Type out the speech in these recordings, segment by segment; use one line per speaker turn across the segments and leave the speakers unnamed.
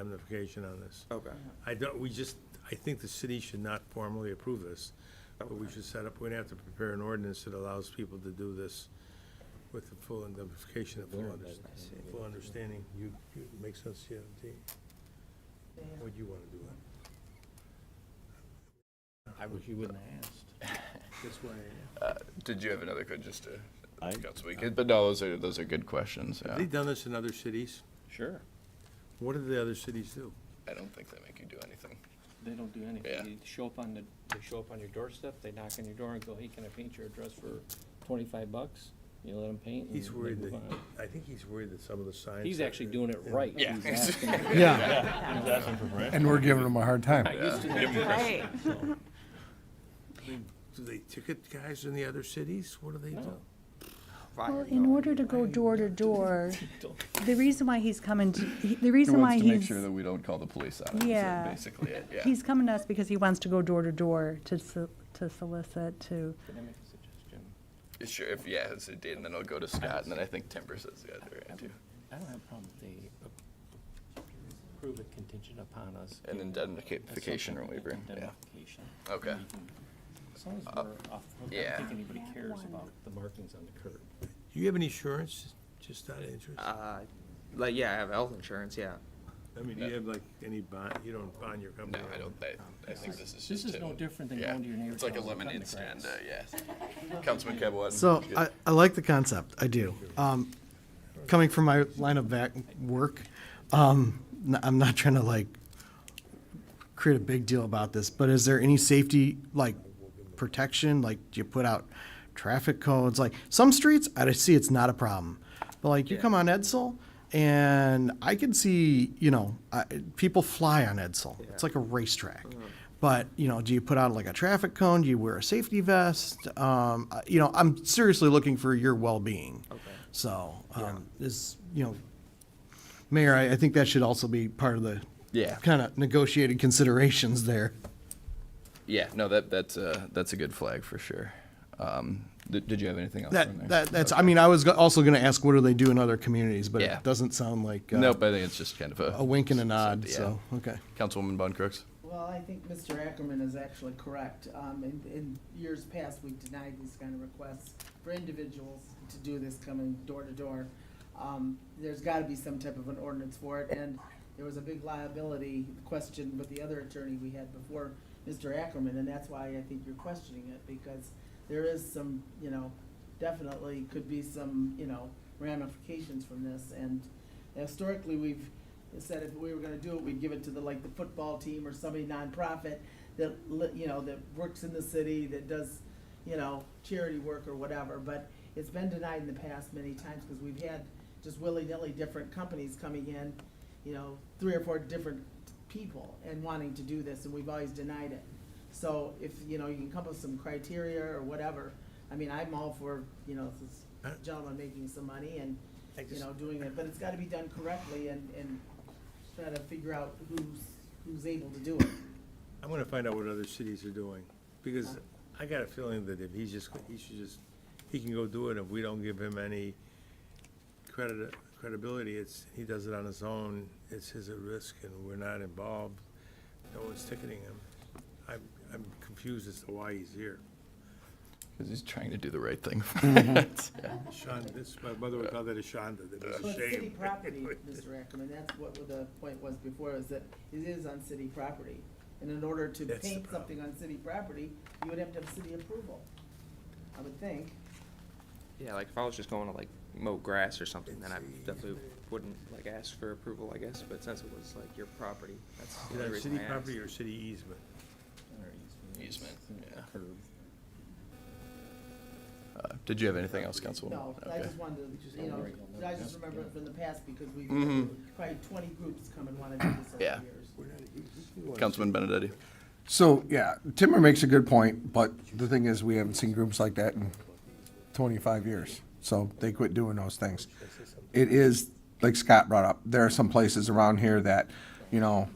indemnification on this.
Okay,
I don't, we just, I think the city should not formally approve this, but we should set up, we'd have to prepare an ordinance that allows people to do this with the full indemnification, the full under- full understanding. You, you, make sense, yeah, Dean? Would you wanna do it?
I wish you wouldn't have asked.
That's why,
Did you have another question just to?
I-
Got some- But no, those are, those are good questions, yeah.
have they done this in other cities?
Sure.
What do the other cities do?
I don't think they make you do anything.
They don't do
Yeah.
anything. They show up on the, they show up on your doorstep, they knock on your door and go, hey, can I paint your address for twenty-five bucks? You let them paint and
He's
they
worried
move
that,
on.
I think he's worried that some of the signs.
He's
that-
actually doing it right.
Yeah.
He's asking-
Yeah,
I
and we're giving them a hard time.
used to do that.
Right.
Do they ticket guys in the other cities? What do they do?
No.
fire.
Well, in order to go door to door, the reason why he's coming, to- he- the
He
reason why
wants to make
he's,
sure that we don't call the police on it, is
Yeah.
that basically it, yeah.
he's coming to us because he wants to go door to door to so- to solicit, to,
Can I make a suggestion?
Sure, if, yeah, it's a date, and then I'll go to Scott, and then I think Timber says the other end too.
I don't have a problem if they approve it contingent upon us.
An
giving
indemnification or
us something,
waiver, yeah.
Indemnification.
Okay. Uh,
We can- As long as we're off, I
yeah.
don't think anybody cares about the markings on the curb.
Do you have any insurance, just out of interest?
Uh, like, yeah, I have health insurance, yeah.
I mean, do you have like any bond, you don't bond your
No,
company?
I don't, I, I think this is just.
This is
a-
no different than
yeah,
going to your neighbor's
It's like a
house and
lemonade
cutting the
stand, uh, yeah. Councilman Kebwa.
So I, I like the concept, I do. Um, coming from my line of back work, um, n- I'm not trying to like create a big deal about this, but is there any safety, like protection? Like, do you put out traffic codes? Like, some streets, I see it's not a problem. But like, you come on Edsel and I can see, you know, I, people fly on Edsel. It's like a racetrack. But, you know, do you put out like a traffic cone? Do you wear a safety vest? Um, I- you know, I'm seriously looking for your well-being. Okay. So, um, is, you know, Mayor, I, I think that should also be part of the
Yeah.
kind of negotiated considerations there.
Yeah, no, that, that's a, that's a good flag for sure. Um, did, did you have anything else on there?
That, that, that's, I mean, I was go- also gonna ask, what do they do in other communities, but
Yeah.
it doesn't sound like, uh,
Nope, I think it's just kind of
a wink and a nod,
Yeah.
so, okay.
Councilwoman Von Crooks?
Well, I think Mr. Ackerman is actually correct. Um, in, in years past, we denied these kind of requests for individuals to do this coming door to door. Um, there's gotta be some type of an ordinance for it, and there was a big liability question with the other attorney we had before, Mr. Ackerman, and that's why I think you're questioning it, because there is some, you know, definitely could be some, you know, ramifications from this, and historically, we've said if we were gonna do it, we'd give it to the, like, the football team or somebody nonprofit that, li- you know, that works in the city, that does, you know, charity work or whatever, but it's been denied in the past many times, because we've had just willy-nilly different companies coming in, you know, three or four different people and wanting to do this, and we've always denied it. So if, you know, you can come up with some criteria or whatever, I mean, I'm all for, you know, this gentleman making some money and,
I
you
just-
know, doing it, but it's gotta be done correctly and, and try to figure out who's, who's able to do it.
I'm gonna find out what other cities are doing, because I got a feeling that if he's just, he should just, he can go do it, if we don't give him any credit, credibility, it's, he does it on his own, it's his at risk, and we're not involved, no one's ticketing him. I'm, I'm confused as to why he's here.
Because he's trying to do the right thing. Yeah.
Sean, this, my mother would call that a Shonda, that
So
was
it's
a
city
shame.
property, Mr. Ackerman, that's what the point was before, is that it is on city property. And in order to
That's the
paint
problem.
something on city property, you would have to have city approval, I would think.
Yeah, like if I was just going to like mow grass or something, then I definitely wouldn't like ask for approval, I guess, but since it was like your property, that's the
Is
only
that
reason
city
I asked.
property or city easement?
Easement, yeah.
Curb.
Uh, Did you have anything else, Councilwoman?
No, I
Okay.
just wanted to, you know, I just remember it from the past because we've
Mhm.
Mm-hmm.
probably twenty groups come and wanna do this over the
Yeah.
years.
Councilman Benedetti?
So,
Yeah, Timmer makes a good point, but the thing is, we haven't seen groups like that in twenty-five years, so they quit doing those things. It is, like Scott brought up, there are some places around here that, you know,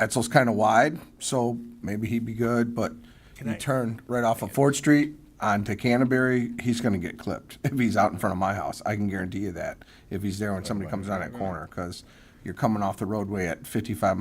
Etzel's kind of wide, so maybe he'd be good, but
I-
you turn right off of Ford Street onto Canterbury, he's gonna get clipped if he's out in front of my house. I can guarantee you that, if he's there when somebody comes around that corner, because you're coming off the roadway at fifty-five